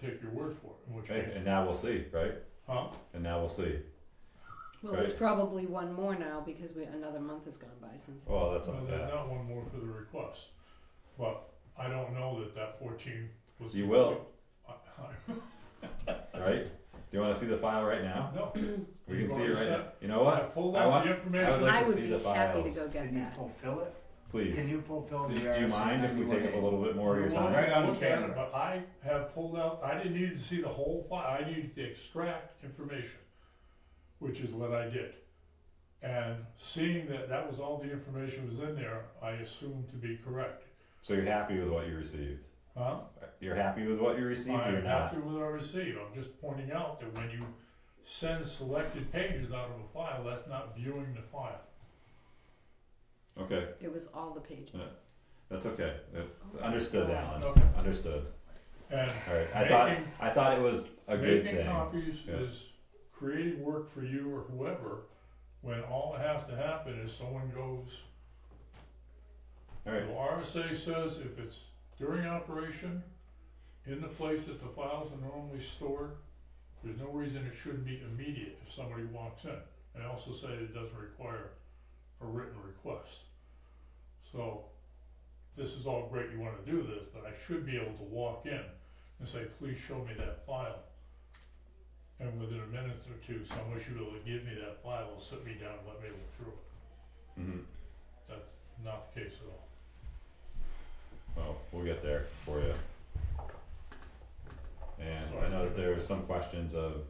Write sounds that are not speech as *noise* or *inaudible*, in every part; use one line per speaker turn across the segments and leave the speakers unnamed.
take your word for it, in which
Right, and
case,
now we'll see, right?
huh?
And now we'll see.
Well, there's
Right.
probably one more now because we, another month has gone by since.
Well, Oh, that's
Well,
not
then
bad.
not one more for the request, but I don't know that that fourteen was.
You will.
I,
Right? Do you want to see the file right
I,
now?
no,
*clears throat* We
You've
can see
already
it right
said
now. You know
I
what?
pulled
I
out
want-
the
I would
information,
like
I
to
would
see
be
the
happy to
files.
go get
Can you
that.
fulfill it? Can
Please.
you fulfill
Do
the
do you
RSA
mind if we take up a
91A?
little bit more of your
You're welcome
time?
Right on
to look at it,
camera.
But I have pulled out, I didn't need to see the whole file, I needed to extract information, which is what I did. And seeing that that was all the information was in there, I assumed to be correct,
So you're happy with what you received?
huh?
You're happy with what you received or
I'm
you're not?
happy with what I received, I'm just pointing out that when you send selected pages out of a file, that's not viewing the file.
Okay,
It was all the pages.
that's okay. Uh,
Oh my
Understood,
God.
Alan.
Okay.
Understood.
And
All right. I thought
Making-
I thought it was a good
Making
thing.
copies
Yeah.
is creating work for you or whoever, when all that has to happen is someone goes,
All
the
right.
RSA says if it's during operation, in the place that the files are normally stored, there's no reason it shouldn't be immediate if somebody walks in. They also say it doesn't require a written request. So, this is all great, you wanna do this, but I should be able to walk in and say, please show me that file. And within a minute or two, someone should be able to give me that file, and sit me down, and let me look through it.
hmm
That's not the case at all.
Well, we'll get there for you. And I
Sorry.
know that there were some questions of,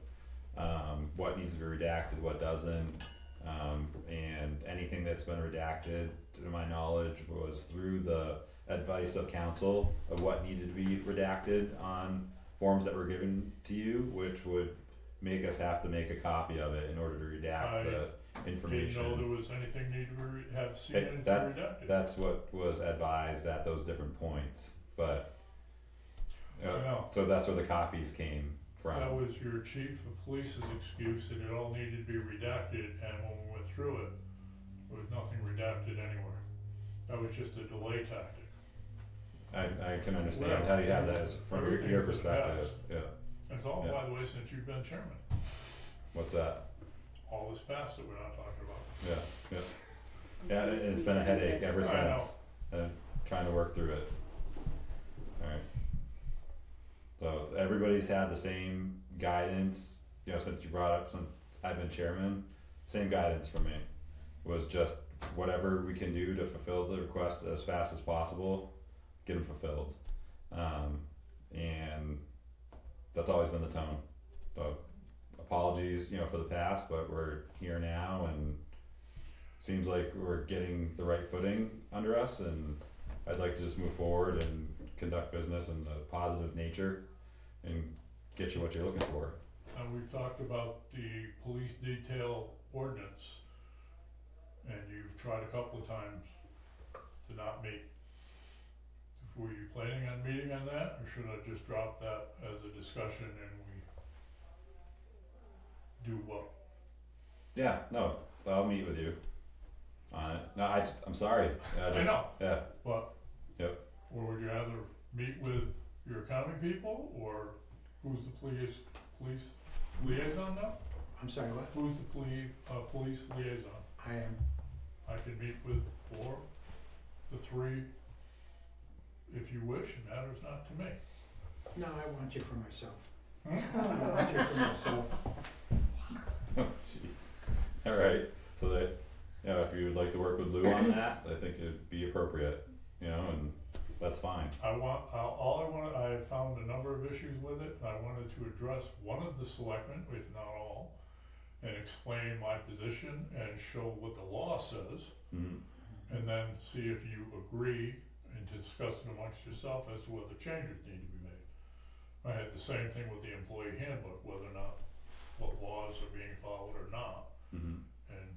um, what needs to be redacted, what doesn't. Um, and anything that's been redacted, to my knowledge, was through the advice of council of what needed to be redacted on forms that were given to you, which would make us have to make a copy of it in order to redact
I
the
Didn't
information.
know there was anything needed to be, re- have seen
Hey,
anything
that's-
redacted.
That's what was advised at those different points, but.
I
Uh,
know,
so that's where the copies came
that
from.
was your chief of police's excuse that it all needed to be redacted, and when we went through it, there was nothing redacted anywhere. That was just a delay tactic.
I, I can understand
Whatever.
how you have that as from your,
Everything's in
your
the
perspective,
past.
yeah,
That's all,
Yeah.
by the way, since you've been chairman,
what's that,
all this past that we're not talking about.
yeah, yeah, yeah, it- it's been a
Please,
headache
yes.
ever
I know.
since, uh, trying to work through it. Alright. So everybody's had the same guidance, you know, since you brought up, since I've been chairman, same guidance for me. Was just whatever we can do to fulfill the request as fast as possible, get them fulfilled. Um, and that's always been the tone. So apologies, you know, for the past, but we're here now and seems like we're getting the right footing under us and I'd like to just move forward and conduct business in a positive nature and get you what you're looking for.
And we've talked about the police detail ordinance. And you've tried a couple of times to not meet. Were you planning on meeting on that, or should I just drop that as a discussion and we do what?
Yeah, no, I'll meet with you on it. No, I just, I'm sorry. I
I
just,
know,
yeah,
but.
Yep.
Or would you rather meet with your accounting people, or who's the police, police liaison now?
I'm sorry, what?
Who's the poli- uh, police liaison?
I am,
I can meet with four, the three, if you wish, it matters not to me.
no, I want you for myself. Hmm? I want you for myself.
*laughs* jeez. All right, so that, you know, if you would like to work with Lou on that, I think it'd be appropriate, you know, and that's fine.
I want, I- all I wanted, I have found a number of issues with it, and I wanted to address one of the selectmen, if not all, and explain my position and show what the law says,
Mhm.
and then see if you agree and discuss it amongst yourself as to whether changes need to be made. I had the same thing with the employee handbook, whether or not, what laws are being followed or not.
Mhm.
and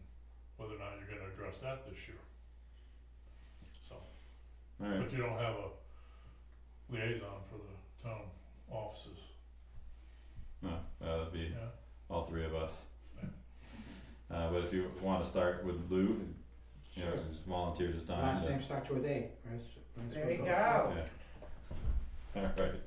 whether or not you're gonna address that this year. So,
All right.
but you don't have a liaison for the town offices,
No, uh, that'd be
yeah?
all three of us. Uh, but if you want to start with Lou, you know,
Sure.
just volunteer just time.
Last
to-
name starts with A. Let's- let's
There you
go.
go.
Yeah. *laughs* All right.